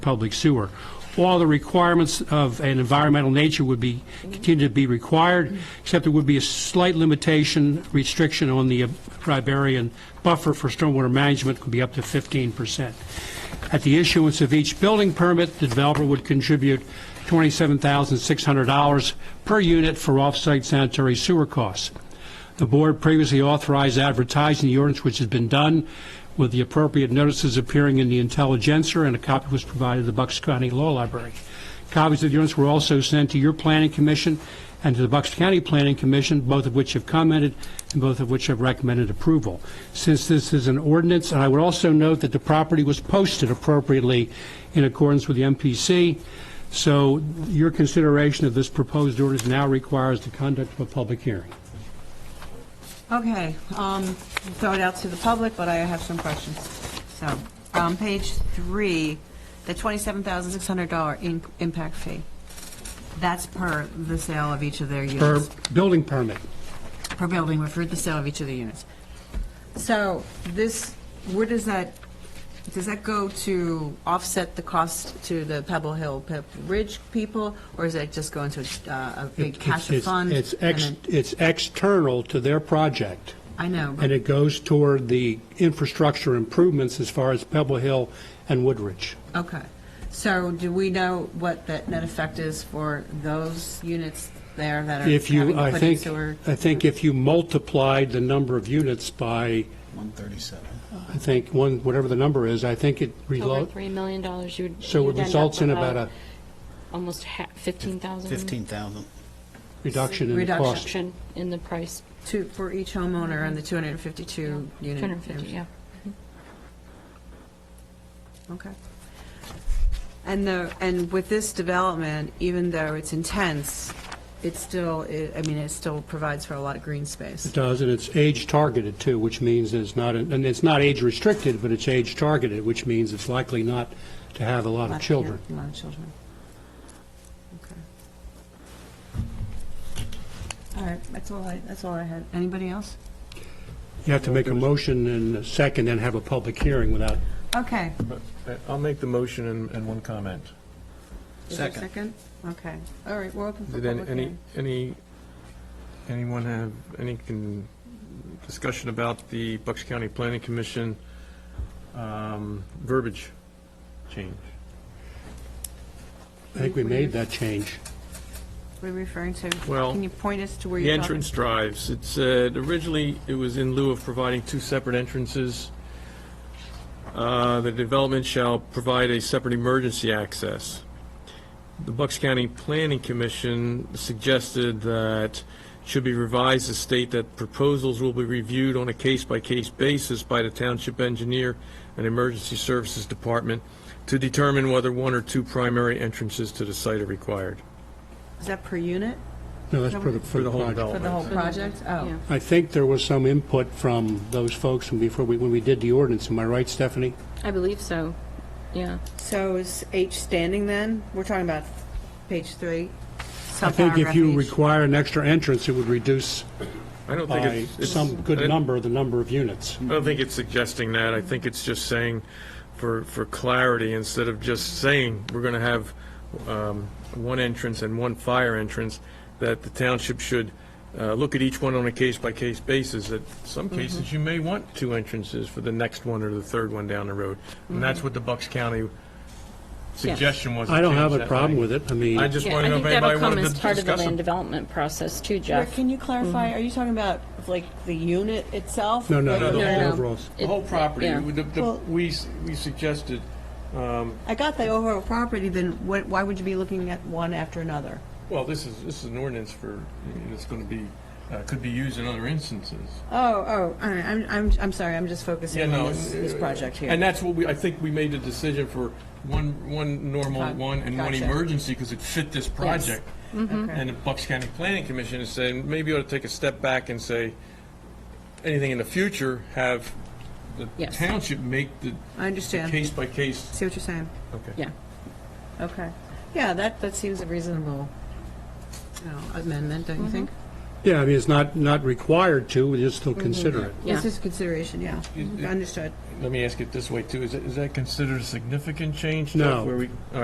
public sewer. All the requirements of an environmental nature would be, continue to be required, except there would be a slight limitation, restriction on the uh, riparian buffer for stormwater management could be up to 15%. At the issuance of each building permit, the developer would contribute $27,600 per unit for off-site sanitary sewer costs. The board previously authorized advertising the ordinance, which has been done, with the appropriate notices appearing in the Intelligencer, and a copy was provided to the Bucks County Law Library. Copies of the ordinance were also sent to your Planning Commission and to the Bucks County Planning Commission, both of which have commented and both of which have recommended approval. Since this is an ordinance, and I would also note that the property was posted appropriately in accordance with the MPC, so your consideration of this proposed ordinance now requires the conduct of a public hearing. Okay, um, throw it out to the public, but I have some questions. So, on page three, the $27,600 in- impact fee, that's per the sale of each of their Per units. building permit. Per building, we're for the sale of each of the units. So, this, where does that, does that go to offset the cost to the Pebble Hill Pip Ridge people, or is it just going to uh, a big cash It's- fund? It's, and ex- then- it's external to their project, I know, and but it goes toward the infrastructure improvements as far as Pebble Hill and Woodridge. Okay, so do we know what the net effect is for those units there that are If having you, to I put in think, sewer? I think if you multiplied the number of units by, 137. I think, one, whatever the number is, I think it over relo- $3 million, you would. so it you'd end up results in with about a Almost ha 15,000. 15,000. reduction in the Reduction. cost. Reduction in the price, Two, for each homeowner and the 252 unit? 250, yeah. Okay. And the, and with this development, even though it's intense, it still, i- I mean, it still provides for a lot of green It space. does, and it's age targeted too, which means it's not, and it's not age restricted, but it's age targeted, which means it's likely not to have a lot Lot of of- children. yeah, A lot of children. Okay. All right, that's all I, that's all I had. Anybody else? You have to make a motion and a second and have a public hearing without, Okay. I- Uh, I'll make the motion and, and one comment. Is there a Second. Second? Okay, all right, we're open for Did any- public any, hearing. any, anyone have any con- discussion about the Bucks County Planning Commission um, verbiage change? I think we made that change. What are we referring to? Well, Can you point us to where The you're talking? entrance drives, it said, originally, it was in lieu of providing two separate entrances. Uh, The development shall provide a separate emergency access. The Bucks County Planning Commission suggested that should be revised to state that proposals will be reviewed on a case-by-case basis by the township engineer and emergency services department to determine whether one or two primary entrances to the site are required. Is that per unit No, that's for the, for For the the whole project. for the whole development. project? Oh, Yeah. I think there was some input from those folks from before we, when we did the ordinance. Am I right, Stephanie? I believe so, yeah. so is H standing then? We're talking about page three, I think if you subparagraph H. require an extra entrance, it would reduce I don't think by it's... it's- some I good didn't- number the number of units. I don't think it's suggesting that. I think it's just saying, for, for clarity, instead of just saying, we're going to have um, one entrance and one fire entrance, that the township should uh, look at each one on a case-by-case basis. That some Mm-hmm. cases, you may want two entrances for the next one or the third one down the road. And Mm-hmm. that's what the Bucks County suggestion was. to I don't have change a that problem language. with it. I mean, I just Yeah, want I to know think if that'll anybody come wanted to as part of the discuss land it. development process too, Jeff. Can you clarify, are you talking about like the unit itself? no, no, Like, no, No, the no, no. overall. The whole property, Yeah. the- the- Well- we, s- we suggested, um, I got the overall property, then what, why would you be looking at one after another? Well, this is, this is an ordinance for, it's going to be, uh, could be used in other instances. Oh, oh, all right, I'm, I'm, I'm sorry, I'm just focusing on this, this project here. uh, And that's what we, I think we made the decision for one, one normal Okay. one and one Gotcha. emergency because it fit this project. Mm-hmm. And the Bucks County Planning Commission is saying, maybe you ought to take a step back and say, anything in the future, have the Yes. township make the I understand. case by case. See what you're saying? Okay. Yeah. Okay. Yeah, that, that seems a reasonable you know, amendment, don't you think? Yeah, I mean, it's not, not required to, we just still consider it. Yeah. This is consideration, yeah. It- it- Understood. let me ask it this way, too. Is it- is that considered a significant change? No. Where we, all